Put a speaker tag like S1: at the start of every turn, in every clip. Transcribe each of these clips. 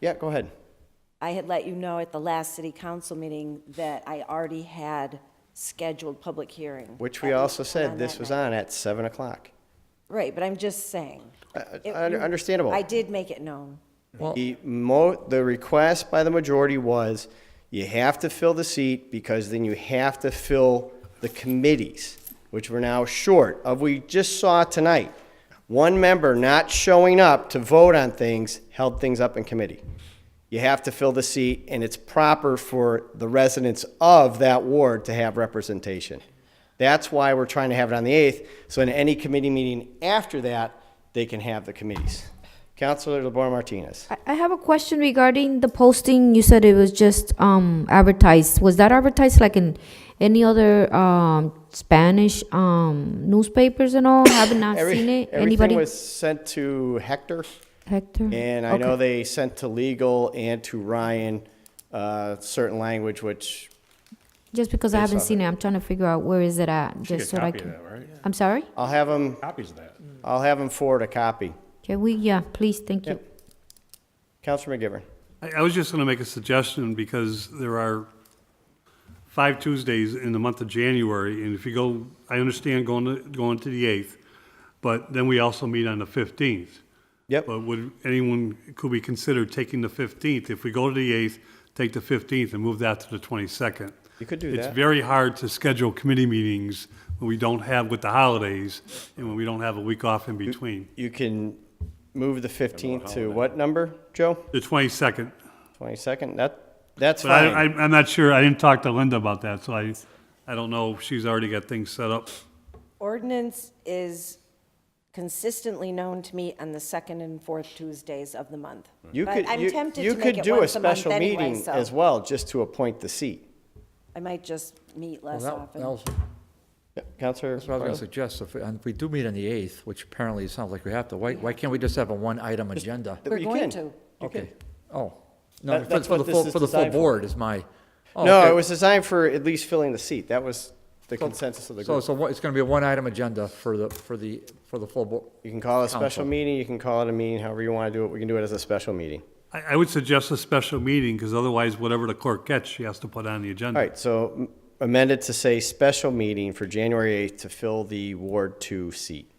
S1: Yeah, go ahead.
S2: I had let you know at the last city council meeting that I already had scheduled public hearing.
S1: Which we
S2: At
S1: also
S2: least
S1: said
S2: on
S1: this
S2: that
S1: was
S2: night.
S1: on at 7 o'clock.
S2: Right, but I'm just saying. It-
S1: un-
S2: you-
S1: understandable.
S2: I did make it known.
S1: The mo, the request by the majority was, you have to fill the seat because then you have to fill the committees, which we're now short of. We just saw tonight, one member not showing up to vote on things held things up in committee. You have to fill the seat, and it's proper for the residents of that ward to have representation. That's why we're trying to have it on the 8th, so in any committee meeting after that, they can have the committees. Counselor DeBoer Martinez.
S3: I- I have a question regarding the posting. You said it was just um, advertised. Was that advertised like in any other um, Spanish um, newspapers and all? Have not
S1: Every-
S3: seen it. Anybody?
S1: Everything was sent to Hector,
S3: Hector.
S1: and I know
S3: Okay.
S1: they sent to legal and to Ryan, uh, certain language, which,
S3: Just because I haven't seen it, I'm trying to figure out where is it at,
S4: Get
S3: just so
S4: a
S3: that I
S4: copy
S3: can.
S4: of that, right?
S3: I'm sorry.
S1: I'll have them,
S4: Copies of that.
S1: I'll have them forward a copy.
S3: Can we? Yeah, please. Thank you.
S1: Counselor McGivern.
S5: I, I was just going to make a suggestion because there are five Tuesdays in the month of January, and if you go, I understand going to, going to the 8th, but then we also meet on the 15th.
S1: Yep.
S5: But would anyone, could we consider taking the 15th? If we go to the 8th, take the 15th and move that to the 22nd.
S1: You could do that.
S5: It's very hard to schedule committee meetings when we don't have with the holidays and when we don't have a week off in between.
S1: You can move the 15th to what number, Joe?
S5: The 22nd,
S1: 22nd? That, that's
S5: But I,
S1: fine.
S5: I, I'm not sure, I didn't talk to Linda about that, so I, I don't know if she's already got things set up.
S2: Ordinance is consistently known to me on the second and fourth Tuesdays of the month.
S1: You
S2: But
S1: could,
S2: I'm
S1: you,
S2: tempted
S1: you
S2: to make
S1: could
S2: it
S1: do a
S2: once month
S1: special
S2: anyway,
S1: meeting
S2: so
S1: as well, just to appoint the seat.
S2: I might just meet less
S6: Well,
S2: often.
S6: that- that was-
S1: Yep, Counselor.
S6: That's what I was going
S1: Bartley?
S6: to suggest. If, and if we do meet on the 8th, which apparently it sounds like we have to, why, why can't we just have a one-item agenda?
S2: We're
S1: You
S2: going
S1: can.
S2: to.
S6: Okay. Oh,
S1: That-
S6: no, for-
S1: that's
S6: for
S1: what
S6: the
S1: this
S6: full,
S1: is
S6: for the full
S1: designed for.
S6: board is my. oh,
S1: No,
S6: okay.
S1: it was designed for at least filling the seat. That was the consensus of the
S6: So,
S1: group.
S6: so what- it's going to be a one-item agenda for the, for the, for the full board.
S1: You can call it a special
S6: Council.
S1: meeting, you can call it a meeting, however you want to do it. We can do it as a special meeting.
S5: I, I would suggest a special meeting, because otherwise, whatever the clerk gets, she has to put on the agenda.
S1: All right, so m- amended to say special meeting for January 8th to fill the Ward 2 seat.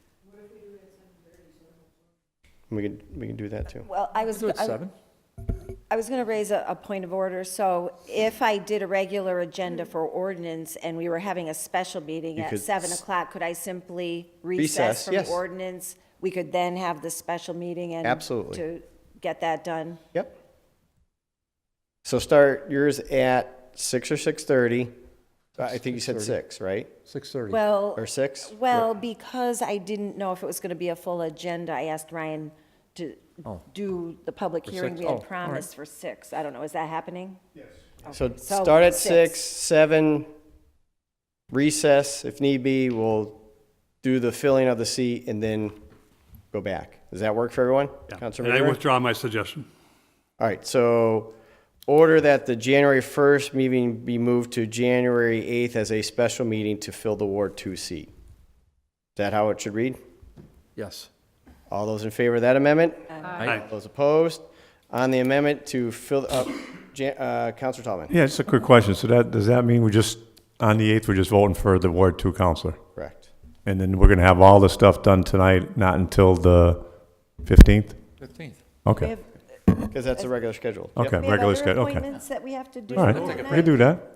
S1: We can, we can do that too.
S2: Well, I was.
S6: Do it
S2: I-
S6: seven.
S2: I was going to raise a, a point of order. So if I did a regular agenda for ordinance and we were having a special meeting
S1: You
S2: at
S1: could
S2: seven
S1: s-
S2: o'clock, could I simply
S1: Recess,
S2: recess from
S1: yes.
S2: ordinance? We could then have the special meeting and.
S1: Absolutely.
S2: To get that done.
S1: Yep. So start yours at 6 or 6:30. I think you said 6, right?
S6: 6:30.
S2: Well.
S1: Or 6?
S2: Well, because I didn't know if it was going to be a full agenda, I asked Ryan to
S6: Oh.
S2: do the public
S6: For
S2: hearing
S6: six?
S2: we
S6: Oh, all
S2: had
S6: right.
S2: promised for six. I don't know, is that happening?
S1: So
S2: So,
S1: start at
S2: six.
S1: six, seven, recess if need be, we'll do the filling of the seat and then go back. Does that work for everyone?
S5: Yeah.
S1: Councilor
S5: And I
S1: Rivera?
S5: withdraw my suggestion.
S1: All right, so order that the January first meeting be moved to January eighth as a special meeting to fill the Ward Two seat. Is that how it should read?
S6: Yes.
S1: All those in favor of that amendment?
S5: Aye.
S1: Those opposed? On the amendment to fill, uh, Jan- uh, Counselor Tallman?
S4: Yeah, it's a quick question. So that, does that mean we're just, on the 8th, we're just voting for the Ward 2 counselor?
S1: Correct.
S4: And then we're going to have all this stuff done tonight, not until the 15th?
S6: 15th.
S2: We
S4: Okay,
S2: have-
S1: Because that's the regular schedule. Yep.
S4: okay,
S2: we have
S4: regular
S2: other
S4: schedule, okay.
S2: appointments that we have to do.
S4: All
S2: that
S4: right, we can
S2: night.
S4: do that.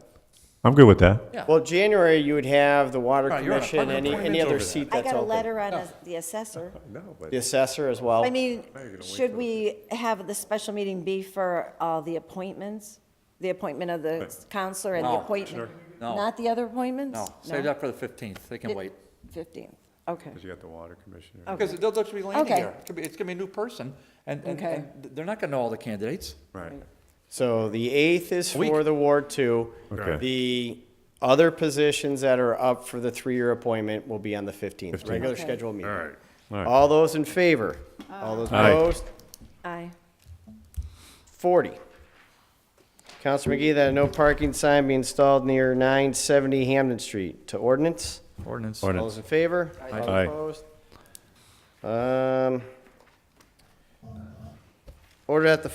S4: I'm good with that.
S6: Yeah.
S1: Well, January, you would have the water
S6: Right, you're on
S1: commission,
S6: appointment-
S1: any, any
S6: appointments
S1: other
S6: over
S1: seat
S2: I
S1: that's
S2: got a
S1: open.
S2: letter on a- the assessor.
S1: The assessor as well.
S2: I mean, should we have the special meeting be for uh, the appointments? The appointment of the counselor and the
S6: No,
S2: appointment?
S6: No.
S2: Not the other appointments?
S6: No, save that for the 15th. They can wait.
S2: 15th, okay.
S4: you got the water commissioner.
S6: Because they'll just be landing
S2: Okay.
S6: there. It could be- It's going to be a new person, and, and
S2: Okay.
S6: and they're not going to know all the candidates.
S4: Right.
S1: So the eighth is
S6: Week.
S1: for the Ward Two.
S4: Okay.
S1: The other positions that are up for the three-year appointment will be on the fifteenth,
S4: 15th.
S1: regular
S2: Okay. Uh,
S1: schedule meeting.
S5: right.
S4: All right.
S1: All those in favor? All those
S4: Aye.
S1: opposed?
S2: Aye.
S1: Forty. Counselor McGee, that a no parking sign be installed near nine seventy Hamden Street to ordinance?
S6: Ordinance.
S1: All those in favor? All
S4: Aye.
S1: opposed? Um, Order that the